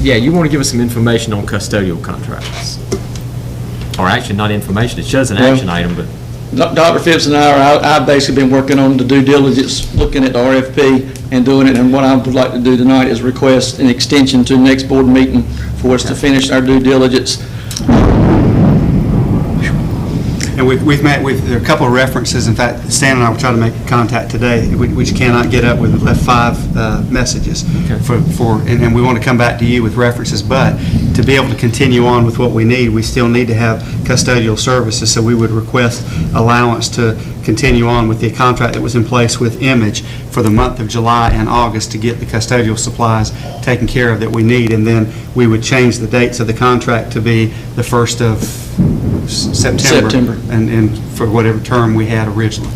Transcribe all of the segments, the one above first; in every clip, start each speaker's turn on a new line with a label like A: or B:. A: yeah, you want to give us some information on custodial contracts. Or actually, not information, it shows an
B: Well-
A: action item, but,
B: Doc- Dr. Phipps and I, are- I- I've basically been working on the due diligence, looking at the RFP and doing it, and what I would like to do tonight is request an extension to next board meeting for us to finish our due diligence.
C: And we've, we've met with, there are a couple of references, in fact, Stan and I were trying to make contact today, we we just cannot get up with, we've left five uh, messages for, for, and and we want to come back to you with references, but to be able to continue on with what we need, we still need to have custodial services, so we would request allowance to continue on with the contract that was in place with Image for the month of July and August to get the custodial supplies taken care of that we need, and then we would change the dates of the contract to be the first of S- September.
B: September.
C: And, and for whatever term we had originally.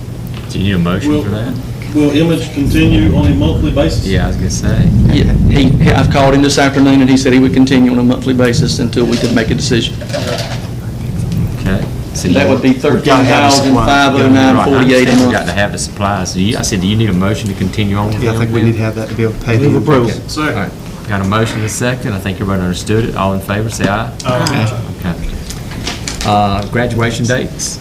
A: do you need a motion for that?
D: Will Image continue on a monthly basis?
A: Yeah, I was going to say.
B: Yeah, He, he- I've called him this afternoon, and he said he would continue on a monthly basis until we could make a decision.
A: Okay. So
B: That
A: you-
B: would be
C: We've gotta have a supply.
A: Right, I
B: 13509
A: understand
B: a
A: we got to
B: month.
A: have the supplies. Do you- I said, do you need a motion to continue on with
C: Yeah, I think we
A: them?
C: need to have that to be able to pay the. approval.
A: All
D: Second.
A: right. Got a motion and a second. I think everybody understood it. All in favor, say aye. Okay. Uh, Graduation dates?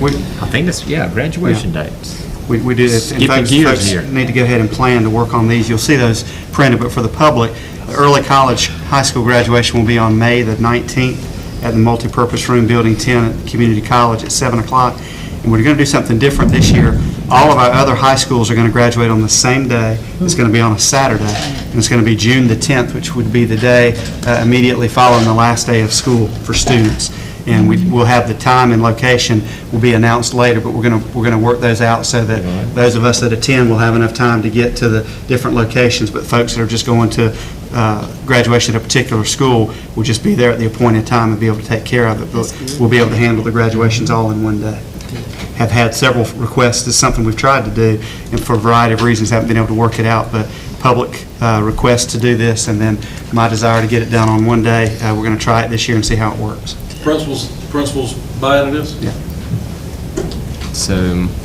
C: We,
A: I think that's, yeah, graduation dates.
C: we we do, if-
A: Skipping
C: in fact,
A: gears
C: folks
A: here.
C: need to go ahead and plan to work on these. You'll see those printed, but for the public, early college, high school graduation will be on May the 19th at the multipurpose room, Building 10 at Community College at 7 o'clock. And we're going to do something different this year. All of our other high schools are going to graduate on the same day. It's going to be on a Saturday, and it's going to be June the 10th, which would be the day uh, immediately following the last day of school for students. and we, we'll have the time and location will be announced later, but we're gonna, we're gonna work those out so that those of us that attend will have enough time to get to the different locations, but folks that are just going to uh, graduation at a particular school will just be there at the appointed time and be able to take care of it, but we'll be able to handle the graduations all in one day. Have had several requests, it's something we've tried to do, and for a variety of reasons haven't been able to work it out, but public uh, request to do this, and then my desire to get it done on one day, Uh, we're gonna try it this year and see how it works.
D: Principals, principals buying this?
A: So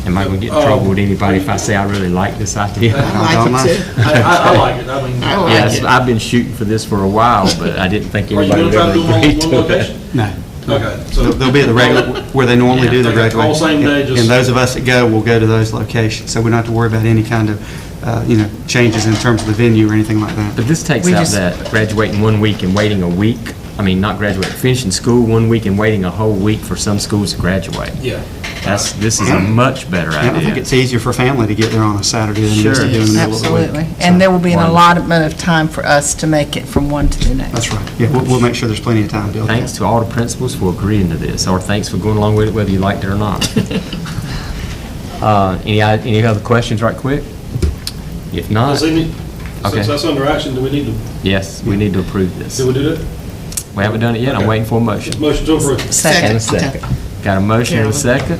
A: am I going to get in trouble with anybody if I say I really like this idea?
C: I don't
E: like it
C: mind.
E: too.
D: I, I I like it, I mean.
E: I like
A: Yes, I've been shooting for this for a while, but I didn't think
D: Are you
A: anybody would ever
D: gonna try to do them all
A: agree
D: in one
A: to it.
D: location?
C: No.
D: Okay, so.
C: They'll they'll be at the regular, where they normally do the
D: Yeah,
C: graduation.
D: all same day,
C: And-
D: just-
C: And those of us that go will go to those locations, so we don't have to worry about any kind of, uh, you know, changes in terms of the venue or anything like that.
A: But this takes
E: We
A: out
E: just-
A: that graduating one week and waiting a week, I mean, not graduating, finishing school one week and waiting a whole week for some schools to graduate.
D: Yeah.
A: That's, this is a much better
C: And I think
A: idea.
C: it's easier for family to get there on a Saturday than it is to
A: Sure.
C: do in the middle of the week.
E: Absolutely. And there will be an
A: Wonderful.
E: allotment of time for us to make it from one to the next.
C: That's right. Yeah, we'll, we'll make sure there's plenty of time, Bill.
A: Thanks to all the principals for agreeing to this, or thanks for going along with it whether you liked it or not. Uh, Any, i- any other questions right quick? If not,
D: Does any-
A: Okay.
D: Since that's under action, do we need to,
A: yes, we need to approve this.
D: do we do that?
A: We haven't done it yet, I'm
D: Okay.
A: waiting for a motion.
D: Motion to approve.
A: And a second. Got a motion and a second?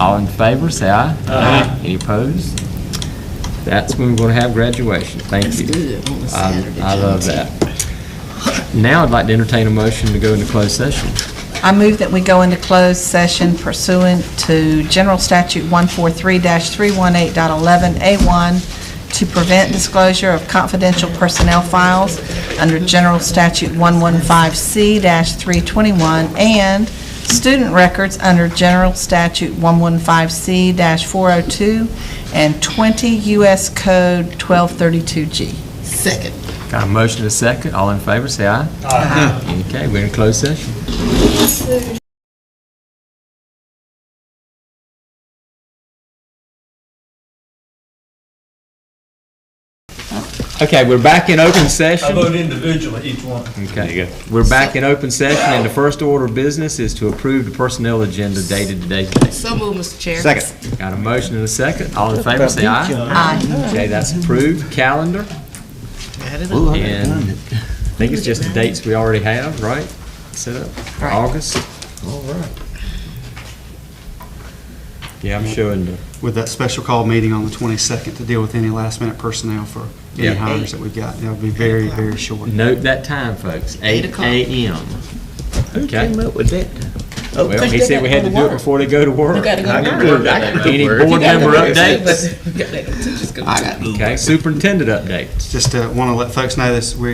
A: All in favor, say aye. Aye. Any opposed? That's when we're going to have graduation. Thank you. I I love that. Now I'd like to entertain a motion to go into closed session.
E: I move that we go into closed session pursuant to General Statute 143-318.11A1 to prevent disclosure of confidential personnel files under General Statute 115C-321 and student records under General Statute 115C-402 and 20 U.S. Code 1232G.
F: Second.
A: Got a motion and a second? All in favor, say aye. Aye. Okay, we're in closed session. Okay, we're back in open session.
G: vote individually, each one.
A: Okay, we're back in open session, and the first order of business is to approve the personnel agenda dated today.
F: So moved, Mr. Chair.
C: Second.
A: Got a motion and a second. All in favor, say aye. Aye. Okay, that's approved. Calendar, and I think it's just the dates we already have, right? Set up for
E: Right.
A: August? All right. Yeah, I'm showing the,
C: With that special call meeting on the 22nd to deal with any last minute personnel for any
A: Yeah.
C: hires that we've got. That'll be very, very short.
A: note that time, folks, eight
F: o'clock.
A: AM. Who came up with that?
E: Oh,
A: Well,
E: 'cause
A: he
E: they
A: said we
E: gotta
A: had to
E: go
A: do it
E: work.
A: before they go to work.
F: You gotta go
A: I can
F: to
A: do
F: work.
A: that. Any board
F: You gotta
A: member
F: go to
A: updates?
F: work. You gotta go to work.
A: Okay, superintendent updates.
C: Just want to uh, let folks know this, we